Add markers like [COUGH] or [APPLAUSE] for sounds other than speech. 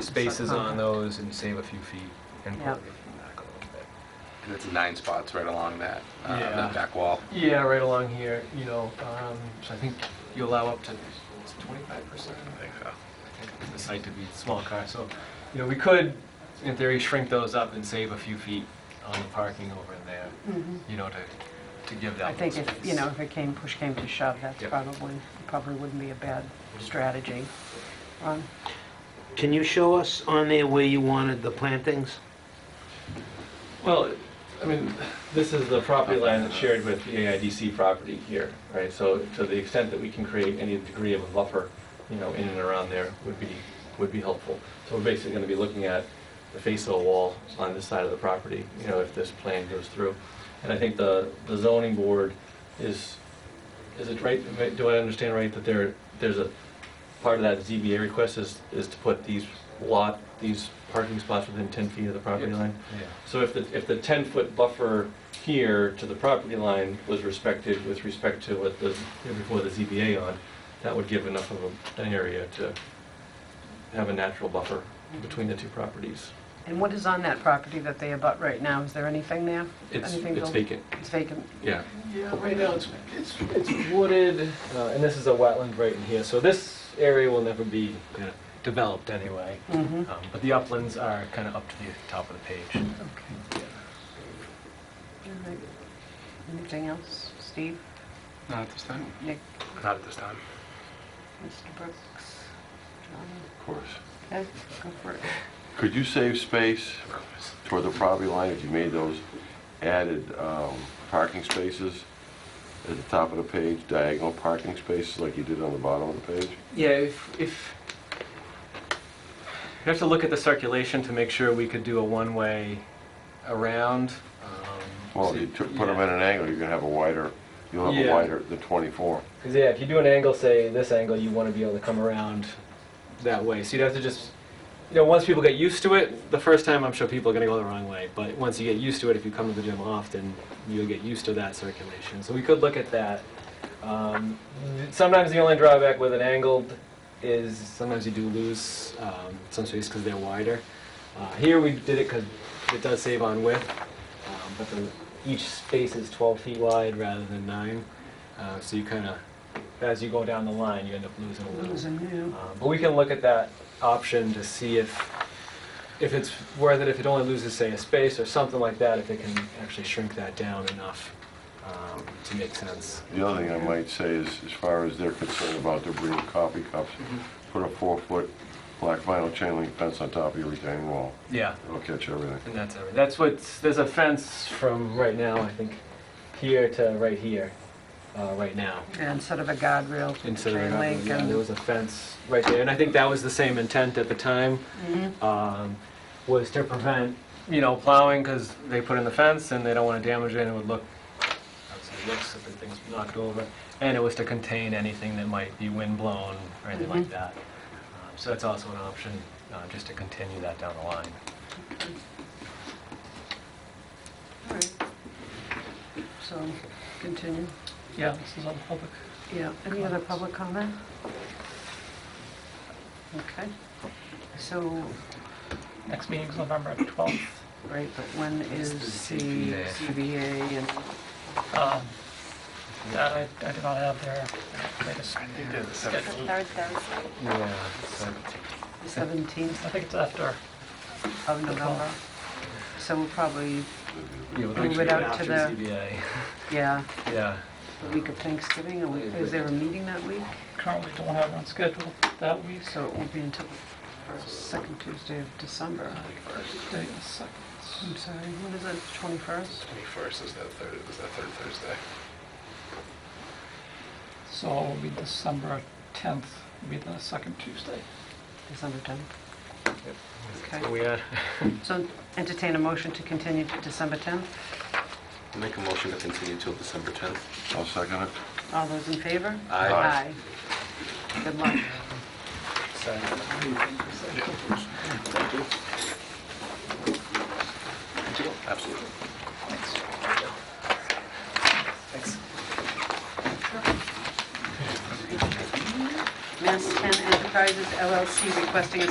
spaces on those and save a few feet and Yep. probably back a little bit. And it's nine spots right along that, uh, Yeah. that back wall. Yeah, right along here, you know, um, so I think you allow up to twenty-five percent, I think, of the site to be small cars, so, you know, we could, in theory, shrink those up and save a few feet on the parking over there, Mhm. you know, to, to give I that little think space. if, you know, if it came, push came to shove, that's Yep. probably, probably wouldn't be a bad strategy. Um, Can you show us on there where you wanted the plantings? Well, I mean, this is the property line that's shared with the AIDC property here, right? So to the extent that we can create any degree of a buffer, you know, in and around there would be, would be helpful. So we're basically going to be looking at the face of the wall on this side of the property, you know, if this plan goes through. And I think the, the zoning board is, is it right, do I understand right that there, there's a, part of that ZBA request is, is to put these lot, these parking spots within 10 feet of the property Yep. line? Yeah. So if the, if the 10-foot buffer here to the property line was respected with respect to what the, before the ZBA on, that would give enough of a- an area to have a natural buffer between the two properties. And what is on that property that they abut right now? Is there anything there? It's, Anything it's built? vacant, It's vacant. yeah. Yeah, right now it's, it's, it's wooded, uh, and this is a wetland right in here, so this area will never be uh, developed anyway. Mm-hmm. Um, But the uplands are kind of up to the top of the page. Okay. All right. Anything else? Steve? Not at this time. Nick? Not at this time. Mr. Brooks? John? Of course. Okay, go for it. Could you save space toward the property line if you made those added um, parking spaces at the top of the page, diagonal parking spaces like you did on the bottom of the page? Yeah, if, if, you have to look at the circulation to make sure we could do a one-way around. um, Well, so- if you took- put them at an angle, you're gonna have a wider, you'll have a Yeah. wider, the 24. Because yeah, if you do an angle, say this angle, you want to be able to come around that way. So you'd have to just, you know, once people get used to it, the first time I'm sure people are going to go the wrong way. But once you get used to it, if you come to the gym often, you'll get used to that circulation. So we could look at that. Um, sometimes the only drawback with an angled is sometimes you do lose um, some space because they're wider. Uh, here we did it because it does save on width, um, but the, each space is 12 feet wide rather than nine. Uh, so you kind of, as you go down the line, you end up losing a little. Losing you. Um, But we can look at that option to see if, if it's worth it, if it only loses, say, a space or something like that, if it can actually shrink that down enough um, to make sense. The other thing I might say is, as far as they're concerned about their bringing coffee cups, Mm-hmm. put a four-foot black vinyl chain link fence on top of your retaining wall. Yeah, It'll catch everything. and that's everything. That's what's, there's a fence from right now, I think, here to right here, uh, right now. Yeah, Instead of a guardrail, Instead of, chain link yeah, there and... was a fence right there, and I think that was the same intent at the time. Mhm. um, was to prevent, you know, plowing, because they put in the fence and they don't want to damage it, and it would look, obviously it looks if the thing's knocked over. And it was to contain anything that might be windblown or anything Mm-hmm. like that. Um, So that's also an option, uh, just to continue that down the line. Mm-hmm. All right. So, continue. Yeah, this is all public. Yeah, any other public comment? Okay, so, Next meeting's November 12th. right, but when is It's the the CBA. CBA and, Um, That I I do not have their latest schedule. Third Thursday. Yeah, so the 17th I think it's after. of November? So we'll probably, yeah, we'll Move it actually out to after the- CBA. yeah, [LAUGHS] Yeah, the week of Thanksgiving, or is there a meeting that week? Currently don't have one scheduled that week. So it won't be until the first- second Tuesday of December. Tuesday the second. I'm sorry, when is it, 21st? 21st is that third, is that third Thursday. So it will be December 10th, will be the second Tuesday. December 10th? Okay, so we are. so entertain a motion to continue to December 10th? Make a motion to continue till December 10th. I'll second it. All those in favor? Aye. Aye. Good luck. Absolutely. Mass Ten Enterprises LLC requesting a